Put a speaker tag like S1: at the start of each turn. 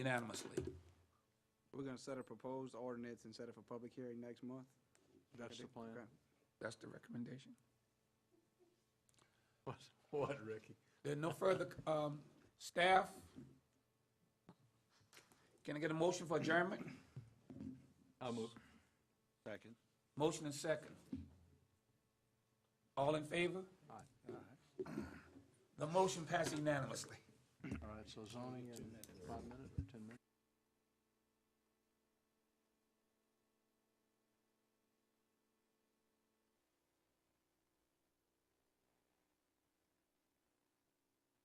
S1: unanimously.
S2: We're gonna set a proposed ordinance and set it for public hearing next month?
S3: That's the plan.
S2: Okay.
S1: That's the recommendation.
S3: What, what, Ricky?
S1: There are no further, um, staff? Can I get a motion for adjournment?
S3: I'll move.
S4: Second.
S1: Motion and second. All in favor? Aye. The motion passed unanimously.
S3: All right, so zoning in five minutes or 10 minutes?